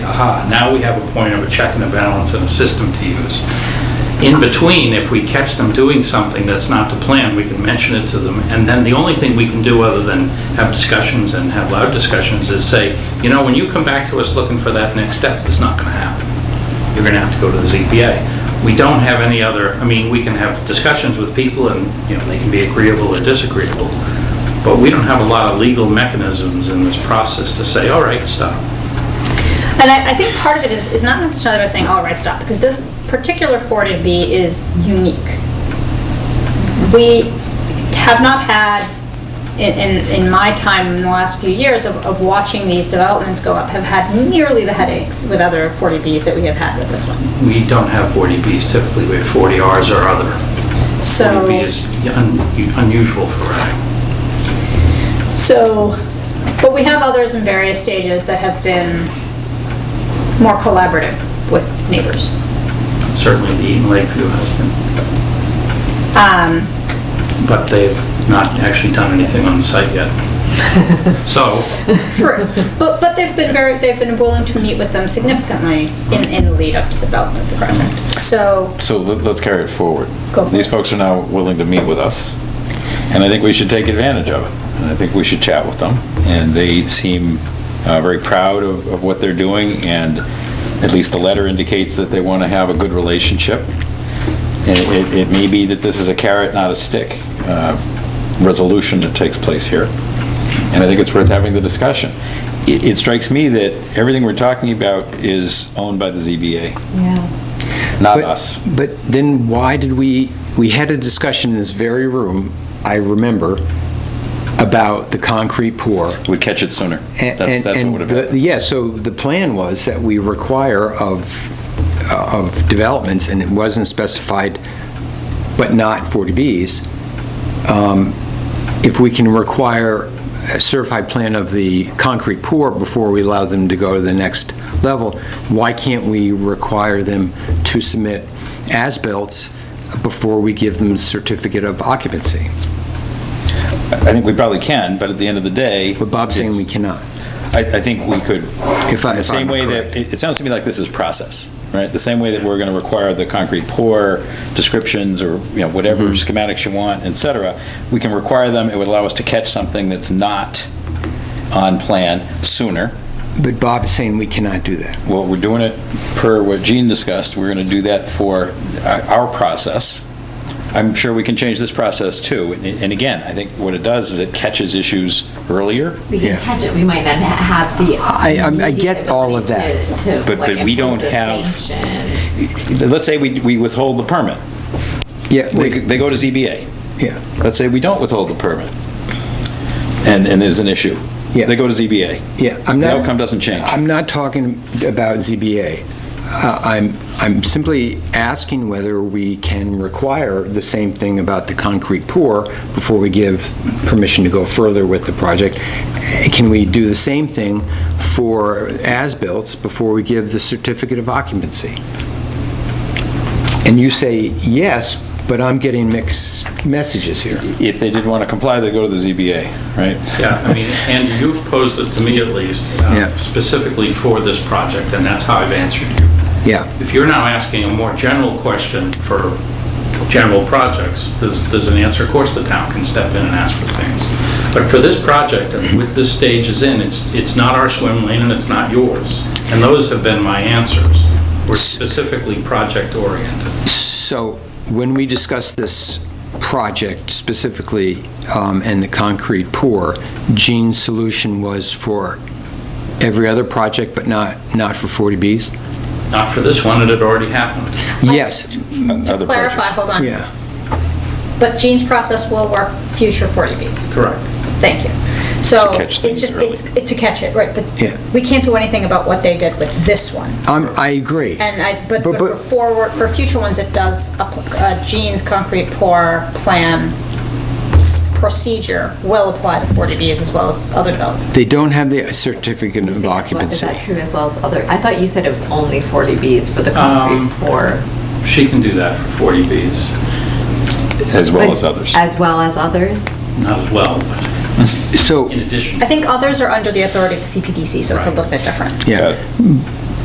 aha, now we have a point of a check and a balance and a system to use. In between, if we catch them doing something that's not the plan, we can mention it to them. And then the only thing we can do other than have discussions and have loud discussions is say, you know, when you come back to us looking for that next step, it's not going to happen. You're going to have to go to the ZBA. We don't have any other, I mean, we can have discussions with people and, you know, they can be agreeable or disagreeable. But we don't have a lot of legal mechanisms in this process to say, all right, stop. And I, I think part of it is, is not necessarily about saying, all right, stop, because this particular 40B is unique. We have not had, in, in, in my time in the last few years of, of watching these developments go up, have had nearly the headaches with other 40Bs that we have had with this one. We don't have 40Bs typically, we have 40Rs or other. So, 40B is un- unusual for Reading. so, but we have others in various stages that have been more collaborative with neighbors. Certainly the Eaton Lakeview has Um, been, but they've not actually done anything on site yet. So, True, but, but they've been very, they've been willing to meet with them significantly in, in the lead up to the development of the project. So, So let- let's carry it forward. Go for These it. folks are now willing to meet with us, and I think we should take advantage of it. And I think we should chat with them, and they seem uh, very proud of of what they're doing, and at least the letter indicates that they want to have a good relationship. And It it may be that this is a carrot, not a stick, uh, resolution that takes place here, and I think it's worth having the discussion. It it strikes me that everything we're talking about is owned by the ZBA, Yeah. not But- us. But then why did we, we had a discussion in this very room, I remember, about the concrete pour. We'd catch it sooner. And- That's, that's what and- would have and the- happened. Yeah, so the plan was that we require of, of developments, and it wasn't specified, but not 40Bs, um, if we can require a certified plan of the concrete pour before we allow them to go to the next level, why can't we require them to submit as-built before we give them certificate of occupancy? I think we probably can, but at the end of the day. But Bob's saying we it's- cannot. I, I think we could, If I- the if same I'm way that, correct. it it sounds to me like this is process, right? The same way that we're going to require the concrete pour descriptions or, you know, whatever Mm-hmm. schematics you want, et cetera, we can require them, it would allow us to catch something that's not on plan sooner. But Bob is saying we cannot do that. Well, we're doing it per what Gene discussed, we're going to do that for our our process. I'm sure we can change this process too. And- And again, I think what it does is it catches issues earlier, We can Yeah. catch it, we might not ha- have the. I- I'm- I the get all of ability that. to- to, But- like, but we don't impose a have- sanction. let's say we we withhold the permit. Yeah, They we- they go to ZBA. yeah. Let's say we don't withhold the permit, and and there's an issue. Yeah. They go to ZBA. Yeah, I'm The not. outcome doesn't change. I'm not talking about ZBA. Uh, I'm, I'm simply asking whether we can require the same thing about the concrete pour before we give permission to go further with the project. Eh, Can we do the same thing for as-built before we give the certificate of occupancy? And you say yes, but I'm getting mixed messages here. If they didn't want to comply, they go to the ZBA, right? yeah, I mean, and you've posed it to me at least, uh, Yeah. specifically for this project, and that's how I've answered you. Yeah. If you're now asking a more general question for general projects, there's, there's an answer, of course, the town can step in and ask for things. But for this project, and with this stage is in, it's, it's not our swim lane and it's not yours. And those have been my answers. We're specifically project-oriented. So when we discussed this project specifically um, and the concrete pour, Gene's solution was for every other project, but not, not for 40Bs? Not for this one, it had already happened. Yes, Other to clarify, projects. hold on. yeah. But Gene's process will work future 40Bs. Correct. Thank you. So, To catch it's things just, it's, it's to catch it, right, but Yeah. we can't do anything about what they did with this one. Um, I agree. And I, but but But- for but- forward, for future ones, it does, appl- uh, Gene's concrete pour plan s- procedure will apply to 40Bs as well as other developments. They don't have the certificate Is of it- Is occupancy. that true as well as other, I thought you said it was only 40Bs for the concrete Um, pour. She can do that for 40Bs, As well but- as others. As well as others? not as well, but So, in addition. I think others are under the authority of the CPDC, so it's a little bit different. Got yeah. it.